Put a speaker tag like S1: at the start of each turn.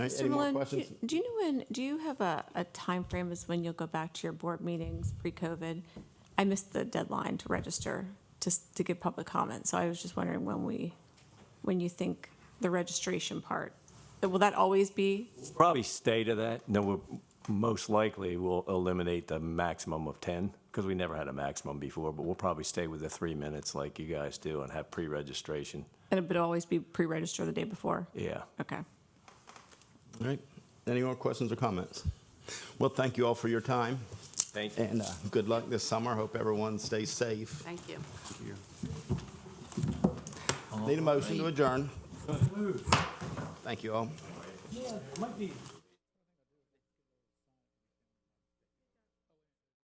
S1: Any more
S2: Millen,
S1: questions?
S2: do- Do you know when, do you have a, a timeframe as when you'll go back to your board meetings pre-COVID? I missed the deadline to register, to, s- to give public comment, so I was just wondering when we, when you think the registration part, will that always be?
S3: Probably stay to that. No, we're, most likely we'll eliminate the maximum of 10 because we never had a maximum before, but we'll probably stay with the three minutes like you guys do and have pre-registration.
S2: And it would always be pre-register the day before?
S3: Yeah.
S2: Okay.
S1: All right. Any more questions or comments? Well, thank you all for your time
S3: Thank you.
S1: and uh, good luck this summer. Hope everyone stays safe.
S4: Thank you.
S1: Need a motion to adjourn. Thank you all.
S5: Yeah, might be